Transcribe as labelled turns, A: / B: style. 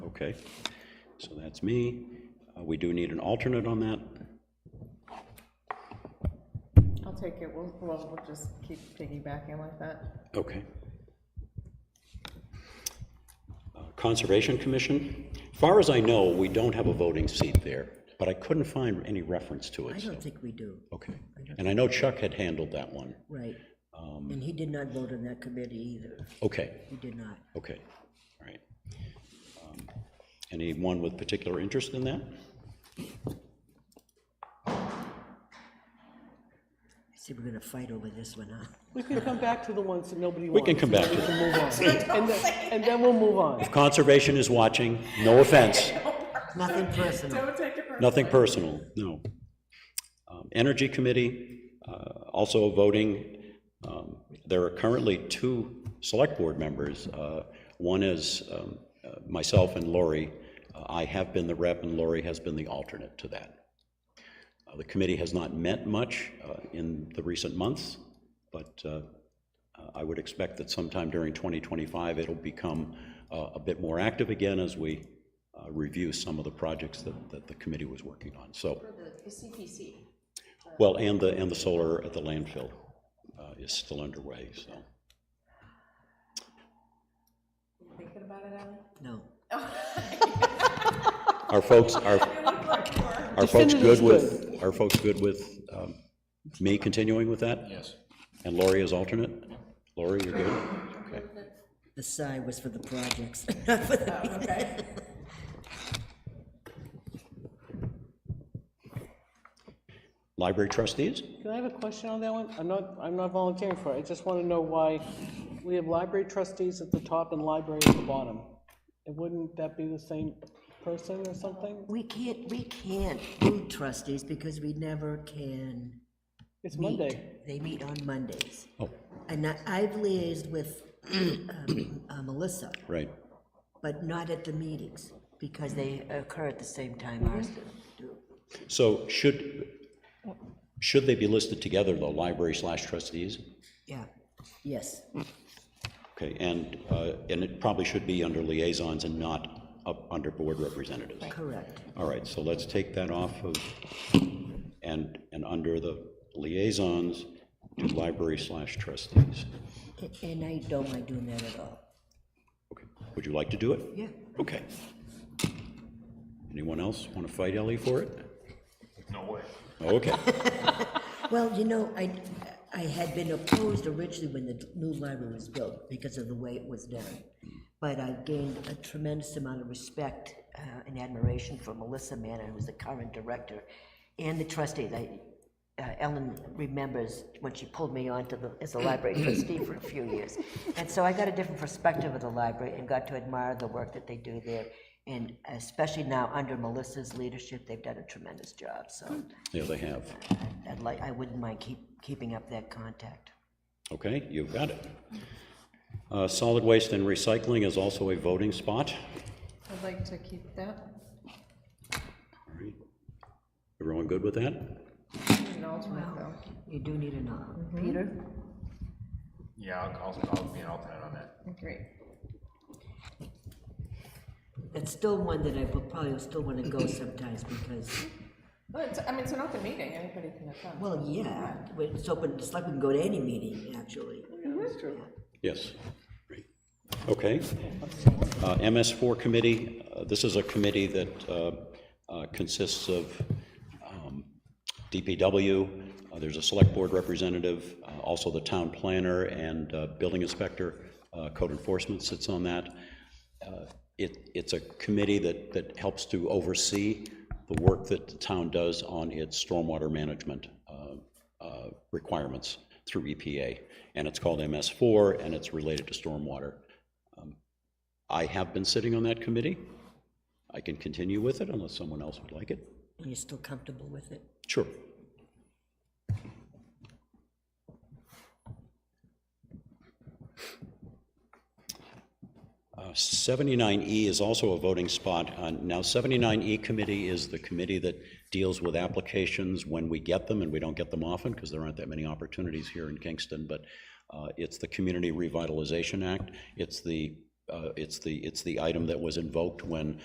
A: Okay, so that's me. Uh, We do need an alternate on that.
B: I'll take it, we'll, we'll we'll just keep piggybacking like that.
A: Okay. Uh, Conservation Commission, far as I know, we don't have a voting seat there, but I couldn't find any reference to
C: I
A: it, so, Oh.
C: don't think we do,
A: okay. And I know Chuck had handled that one.
C: right.
A: Um,
C: And he did not vote on that committee either.
A: Okay,
C: He did not.
A: okay, all right. Um, Anyone with particular interest in that?
C: I said we're gonna fight over this one, huh?
D: We can come back to the ones that nobody
A: We
D: wants.
A: can come back to
D: and
A: it.
D: Move on. And then, and then we'll move on.
A: Conservation is watching, no offense.
C: Nothing personal.
A: Nothing personal, no. Um, Energy Committee, uh, also voting, um, there are currently two Select Board members. Uh, One is um, uh, myself and Lori. Uh, I have been the rep, and Lori has been the alternate to that. Uh, The committee has not met much uh, in the recent months, but uh, I would expect that sometime during 2025, it'll become uh, a bit more active again as we uh, review some of the projects that, that the committee was working on, so. Well, and the, and the solar at the landfill uh, is still underway, so.
C: No.
A: Are folks, are, are folks
D: Definitive is
A: good with, are folks good with um, me continuing with that? Yes. And Lori is alternate? Lori, you're good? Okay.
C: The sigh was for the projects, not for the,
A: Library trustees?
D: Can I have a question on that one? I'm not, I'm not volunteering for it. I just want to know why we have library trustees at the top and library at the bottom. And wouldn't that be the same person or something?
C: we can't, we can't do trustees because we never can
D: It's
C: meet.
D: Monday.
C: They meet on Mondays.
A: Oh,
C: And I- I've liaised with um, uh, Melissa,
A: right,
C: but not at the meetings because they occur at the same time ours do.
A: so should, should they be listed together, though, library slash trustees?
C: Yeah, yes.
A: Okay, and, uh, and it probably should be under liaisons and not up under board representatives.
C: Correct.
A: All right, so let's take that off of, and, and under the liaisons, do library slash trustees.
C: A- And I don't mind doing that at all.
A: Okay, Would you like to do it?
C: Yeah.
A: Okay. Anyone else want to fight Ellie for it? No way. Okay,
C: Well, you know, I, I had been opposed originally when the new library was built because of the way it was done. But I gained a tremendous amount of respect uh, and admiration for Melissa Manor, who's the current director, and the trustees. I- uh, Ellen remembers when she pulled me onto the, as a library trustee for a few years. And so I got a different perspective of the library and got to admire the work that they do there. And especially now, under Melissa's leadership, they've done a tremendous job, so.
A: yeah, they have.
C: I'd like, I wouldn't mind keep, keeping up that contact.
A: Okay, you've got it. Uh, Solid waste and recycling is also a voting spot.
B: I'd like to keep that,
A: All right. Everyone good with that?
B: an alternate though.
C: You do need an alternate. Peter?
E: Yeah, I'll, I'll, I'll be an alternate on that.
B: Great.
C: It's still one that I will probably still want to go sometimes because,
B: Well, it's, I mean, it's an open meeting, anybody can attend.
C: well, yeah, but it's open, it's like we can go to any meeting, actually.
A: Yes. Great. Okay. Uh, MS4 committee, uh, this is a committee that uh, uh, consists of um, DPW, uh, there's a select board representative, uh, also the town planner and uh, building inspector, uh, code enforcement sits on that. Uh, It, it's a committee that, that helps to oversee the work that the town does on its stormwater management uh, uh, requirements through EPA. And it's called MS4, and it's related to stormwater. Um, I have been sitting on that committee. I can continue with it unless someone else would like it.
C: And you're still comfortable with it?
A: Sure. Uh, 79E is also a voting spot. Uh, Now, 79E committee is the committee that deals with applications when we get them, and we don't get them often because there aren't that many opportunities here in Kingston, but uh, it's the Community Revitalization Act. It's the, uh, it's the, it's the item that was invoked when